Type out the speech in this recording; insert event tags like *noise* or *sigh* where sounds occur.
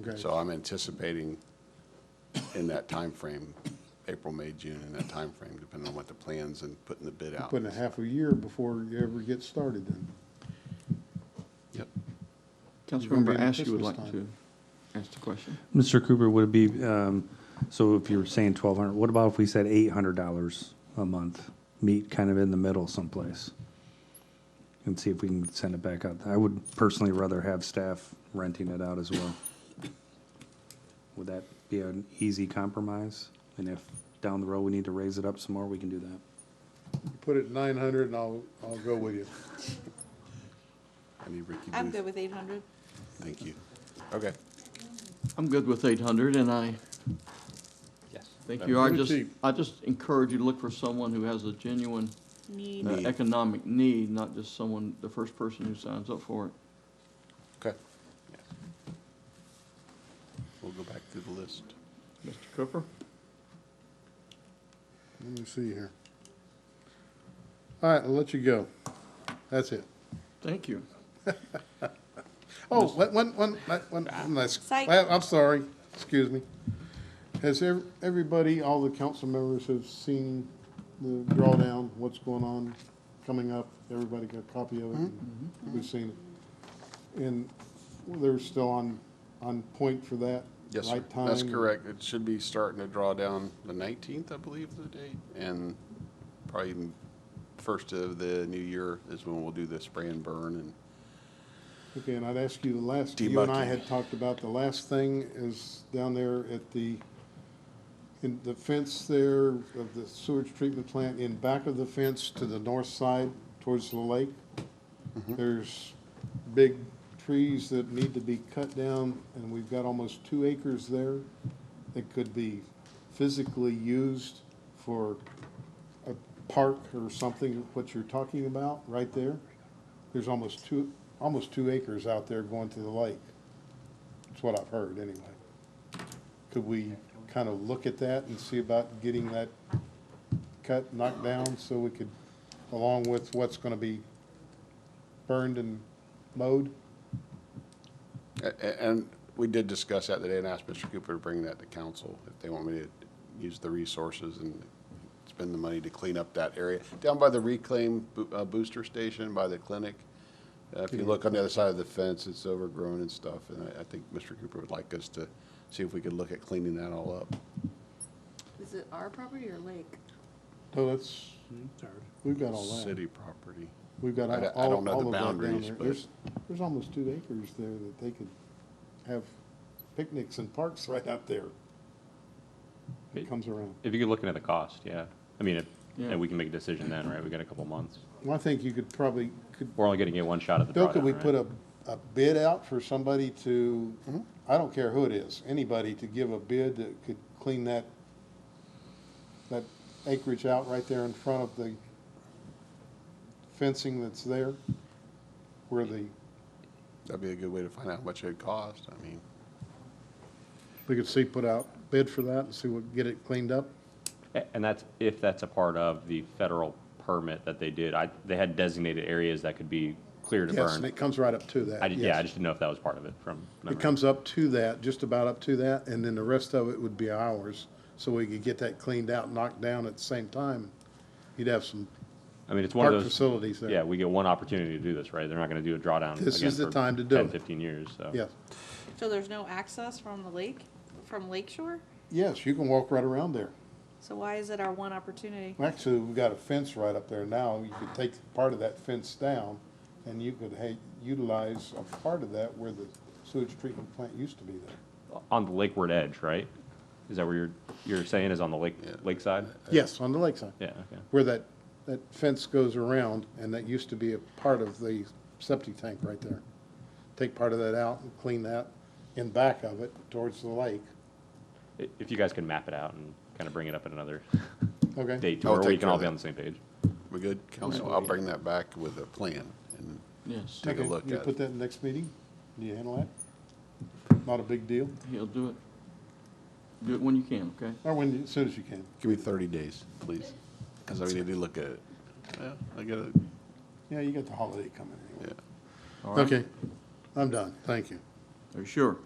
Okay. So I'm anticipating in that timeframe, April, May, June, in that timeframe, depending on what the plans and putting the bid out. Putting a half a year before you ever get started then. Yep. gonna be Councilmember in Askew would Christmas like to ask the question. Mr. Cooper, would it be, um, so if you're saying twelve hundred, what about if we said eight hundred dollars a month? Meet kind of in the middle someplace? And see if we can send it back out. I would personally rather have staff renting it out as well. Would that be an easy compromise? And if down the road we need to raise it up some more, we can do that. Put it nine hundred and I'll, I'll go with you. I need Ricky I'm good Booth. with eight hundred. Thank you. Okay. I'm good with eight hundred, and I Yes. think you are Pretty just, cheap. I just encourage you to look for someone who has a genuine uh, Need, Need. economic need, not just someone, the first person who signs up for it. Okay. We'll go back through the list. Mr. Cooper? Let me see here. All right, I'll let you go. That's it. Thank you. Oh, one, one, one, one, one last, Psych. I- I'm sorry, excuse me. Has ev- everybody, all the council members have seen the drawdown, what's going on, coming up? Everybody got a copy of it? Mm-hmm. and We've seen it. And they're still on, on point for that? Yes, sir. right That's time? correct. It should be starting to draw down the 19th, I believe, is the date, and probably even first of the new year is when we'll do the spray and burn and Okay, and I'd ask you the last, you and I Debugging. had talked about, the last thing is down there at the, in the fence there of the sewage treatment plant, in back of the fence to the north side towards the lake. There's big trees that need to be cut down, and we've got almost two acres there that could be physically used for a park or something, what you're talking about, right there. There's almost two, almost two acres out there going to the lake. That's what I've heard, anyway. Could we kind of look at that and see about getting that cut, knocked down, so we could, along with what's gonna be burned and mowed? A- a- And we did discuss that today and asked Mr. Cooper to bring that to council if they want me to use the resources and spend the money to clean up that area. Down by the reclaim bo- uh, booster station, by the clinic, uh, if you look on the other side of the fence, it's overgrown and stuff. And I- I think Mr. Cooper would like us to see if we could look at cleaning that all up. is it our property or lake? No, that's, we've got all that. City property. We've got I don't- I all, all don't of know that the down boundaries, there. but- There's, there's almost two acres there that they could have picnics and parks *laughs* right out there. It comes around. If you're looking at the cost, yeah. I mean, if, Yeah. and we can make a decision then, right? We got a couple months. Well, I think you could probably, could, We're only gonna get one shot at the Bill, drawdown, could we put right? a, a bid out for somebody to, Hmm? I don't care who it is, anybody to give a bid that could clean that, that acreage out right there in front of the fencing that's there? Where the, That'd be a good way to find out how much it'd cost. I mean, we could see, put out bid for that and see what, get it cleaned up? A- And that's, if that's a part of the federal permit that they did, I, they had designated areas that could be clear to Yes, and burn. it comes right up to that. I, di- yeah, I yes. just didn't know if that was part of it from It memory. comes up to that, just about up to that, and then the rest of it would be ours. So we could get that cleaned out, knocked down at the same time. You'd have some I mean, it's one of park those, facilities there. yeah, we get one opportunity to do this, right? They're not gonna do a drawdown This again is the for time to do 10, it. 15 years, so. Yes, So there's no access from the lake, from Lake Shore? yes, you can walk right around there. So why is it our one opportunity? Actually, we've got a fence right up there now. You could take part of that fence down and you could hey, utilize a part of that where the sewage treatment plant used to be there. On the lakeward edge, right? Is that where you're, you're saying is on the lake, Yeah. lakeside? Yes, on the lakeside. Yeah, okay. Where that, that fence goes around and that used to be a part of the septic tank right there. Take part of that out and clean that in back of it towards the lake. I- If you guys can map it out and kind of bring it up at another Okay? date to I'll where we take can care all of be that. on the same page. we good, council? I'll bring that back with a plan and Yes, take a Okay, look You at put it. that in the next meeting? Do you handle that? Not a big deal? he'll do it. Do it when you can, okay? Or when, as soon as you can. Give me 30 days, please, because I need to look at it. Yeah, I got it. Yeah, you got the holiday coming Yeah. anyway. Okay, I'm done, thank you. Are you sure?